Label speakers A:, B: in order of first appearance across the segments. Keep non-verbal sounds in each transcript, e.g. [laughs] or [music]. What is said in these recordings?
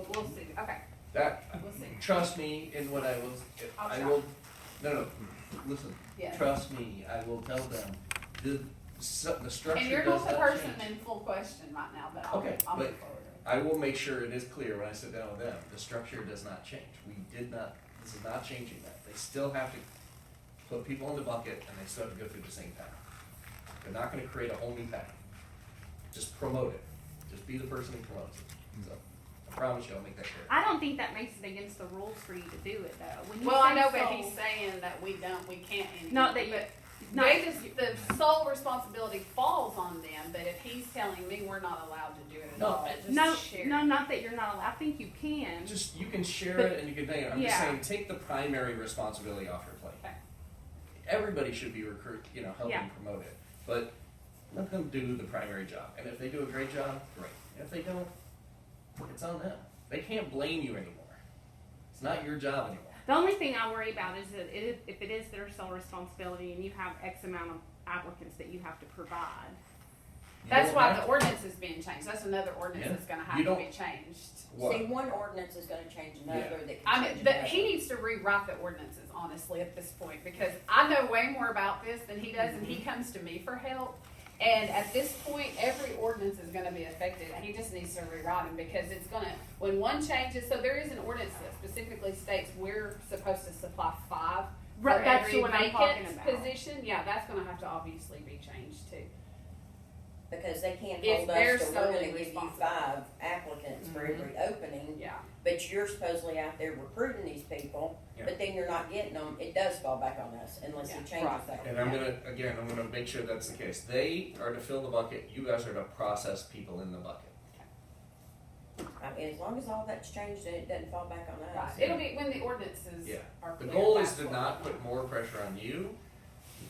A: Okay,
B: That,
A: we'll see.
B: trust me in what I will,
A: I'll
B: I
A: try.
B: will, no, no, listen,
A: Yeah.
B: trust me, I will tell them, the, su- the
A: And you're
B: structure does
A: not
B: not
A: the person
B: change.
A: in full question right now, but I'll,
B: Okay,
A: I'll move
B: but-
A: forward.
B: I will make sure it is clear when I sit down with them, the structure does not change, we did not, this is not changing that, they still have to put people in the bucket and they still have to go through the same path. They're not gonna create a whole new path, just promote it, just be the person who promotes it, so, I promise you, I'll make that clear.
C: I don't think that makes it against the rules for you to do it though. When you
A: Well, I
C: say
A: know, but
C: sold-
A: he's saying that we don't, we can't anymore.
C: Not that you-
A: but
C: not-
A: They just, the sole responsibility falls on them, but if he's telling me we're not allowed to do it at
B: No,
A: all, it
C: no,
A: just share.
C: no, not that you're not allowed. I think you can.
B: Just, you can share
C: But-
B: it and you can name it, I'm just
C: yeah.
B: saying, take the primary responsibility off your plate.
A: Okay.
B: Everybody should be recruit, you know, helping
C: Yeah.
B: promote it, but let them do the primary job, and if they do a great job, great, and if they don't, it's on them, they can't blame you anymore. It's not your job anymore,
C: The only thing I worry about is that it, if it is their sole responsibility and you have X amount of applicants that you have to provide.
B: You
A: That's
B: don't
A: why
B: have
A: the
B: to-
A: ordinance is being changed, that's another ordinance
B: Yeah.
A: that's gonna have
B: You
A: to
B: don't-
A: be changed.
B: What?
D: See, one ordinance is gonna change another that
A: I
D: can
A: mean,
D: change
A: but
D: another.
A: he needs to rewrite the ordinances, honestly, at this point, because I know way more about this than he does, and he
C: Mm-hmm.
A: comes to me for help. And at this point, every ordinance is gonna be affected, and he just needs to rewrite them, because it's gonna, when one changes, so there is an ordinance that specifically states we're supposed to supply five for
C: Right, that's
A: every
C: the one I'm talking
A: vacant
C: about.
A: position, yeah, that's gonna have to obviously be changed too.
D: Because they can't
A: If
D: hold
A: they're
D: us to, we're
A: solely
D: gonna give you
A: responsible.
D: five applicants for
B: Mm-hmm.
D: every opening,
A: Yeah,
D: but you're supposedly out there recruiting these people,
B: Yeah.
D: but then you're not getting them, it does fall back on us unless
A: Yeah.
D: he
A: Right.
D: changes that.
B: And I'm gonna, again, I'm gonna make sure that's the case, they are to fill the bucket, you guys are to process people in the bucket.
D: I mean, as long as all that's changed and it doesn't fall back on
A: right,
D: us.
A: it'll be when the ordinances
B: Yeah.
A: are
B: The
A: clear.
B: goal is
A: that's
B: to
A: what-
B: not put more pressure on you.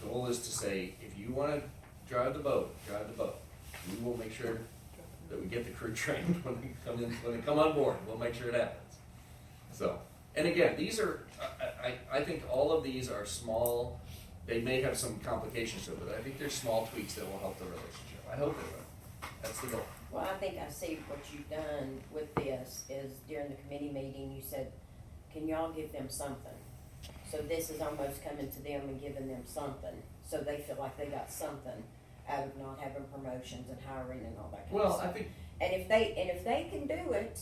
B: The goal is to say, if you wanna drive the boat, drive the boat. We will make sure that we get the crew [laughs] trained when they come in, when they come on board, we'll make sure it happens. So, and again, these are, I, I, I think all of these are small, they may have some complications to it, but I think they're small tweaks that will help the relationship. I hope they will. That's the goal.
D: Well, I think I see what you've done with this is during the committee meeting, you said, can y'all give them something? So this is almost coming to them and giving them something, so they feel like they got something out of not having promotions and hiring and all that kind of
B: Well, I
D: stuff.
B: think,
D: And if they, and if they can do it,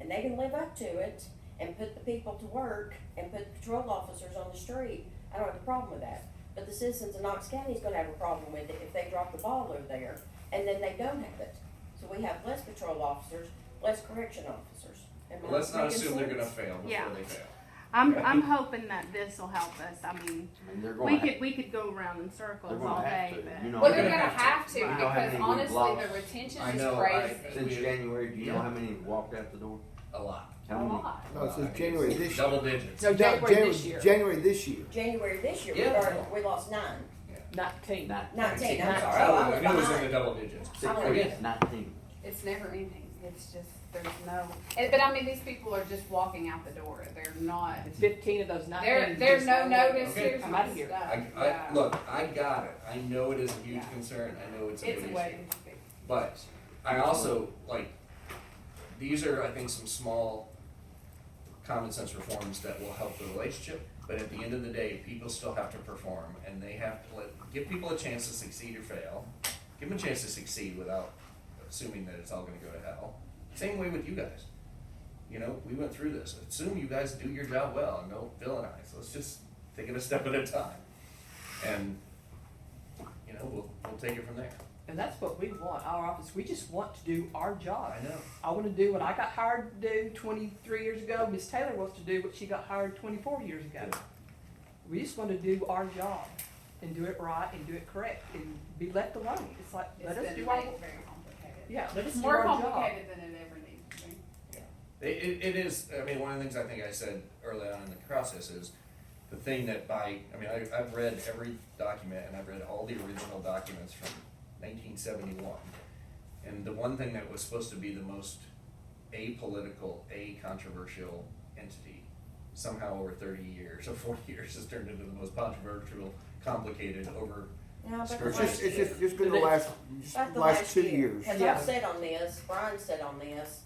D: and they can live up to it, and put the people to work, and put patrol officers on the street, I don't have a problem with that. But the citizens of Knox County is gonna have a problem with it if they drop the ball over there, and then they don't have it. So we have less patrol officers, less correction officers. Am I
B: let's not
D: making
B: assume they're gonna
D: sense?
B: fail before
C: Yeah.
B: they fail.
C: I'm, I'm hoping that this will help us. I mean,
E: I mean, they're going.
C: we could, we could go around in circles all day, but.
E: You know,
A: Well,
B: You're
A: they're
B: gonna
A: gonna
B: have
A: have to,
C: to. Right.
A: because
E: Don't have any
A: honestly, the
E: blocks.
A: retention
B: I
A: is
B: know, I-
A: crazy.
E: since January, do you
B: Yeah.
E: know how many walked out the door?
B: A lot.
A: A
E: How many?
A: lot.
F: No, it
B: I
F: says
B: think
F: January
B: it's
F: this year.
B: Double digits.
G: No,
F: No,
G: January
F: Jan-
G: this year.
F: January this year.
D: January this year, we
B: Yeah.
D: already- we lost nine,
G: Nineteen.
E: Nine-
D: nineteen, I'm
G: Nineteen.
D: sorry,
B: I,
D: I
B: was,
D: was
B: I knew Oh, it was in the
D: behind.
B: double digits.
E: Six
D: Oh,
E: weeks,
B: yeah.
E: nineteen.
A: It's never ending. It's just, there's no, and- but I mean, these people are just walking out the door. They're not,
G: Fifteen of those nineteen.
A: there, there's no
G: just-
A: notice,
B: Okay.
A: here's
G: I'm
A: my
G: outta
A: stuff.
G: here.
B: I,
A: Oh, Yeah.
B: I, look, I got it. I know it is a huge
A: Yeah.
B: concern. I know it's a
A: It's
B: big
A: a
B: issue.
A: way to speak.
B: But I also, like, these are, I think, some small common sense reforms that will help the relationship. But at the end of the day, people still have to perform and they have to let, give people a chance to succeed or fail. Give them a chance to succeed without assuming that it's all gonna go to hell. Same way with you guys. You know, we went through this. Assume you guys do your job well and don't villainize. Let's just take it a step at a time. And, you know, we'll, we'll take it from there.
G: And that's what we want, our office, we just want to do our job.
B: I know.
G: I wanna do what I got hired to do twenty-three years ago, Miss Taylor wants to do what she got hired twenty-four years ago.
B: Yeah.
G: We just wanna do our job and do it right and do it correct and be left alone, it's like,
A: It's
G: let us
A: been
G: do our,
A: made very complicated.
G: yeah, let us
A: It's
G: do
A: more
G: our job.
A: complicated than it ever needs to be.
B: It, it, it is, I mean, one of the things I think I said early on in the process is the thing that by, I mean, I, I've read every document and I've read all the original documents from nineteen seventy-one. And the one thing that was supposed to be the most apolitical, a controversial entity, somehow over thirty years or forty years has turned into the most controversial, complicated over,
D: No, but
B: It's
F: It's just,
D: the last
F: it's
D: year.
F: just, it's been the
G: The
F: last,
G: next-
F: just
D: About the
F: last two years.
D: Cause
G: Yeah.
D: I've said on this, Brian said on this,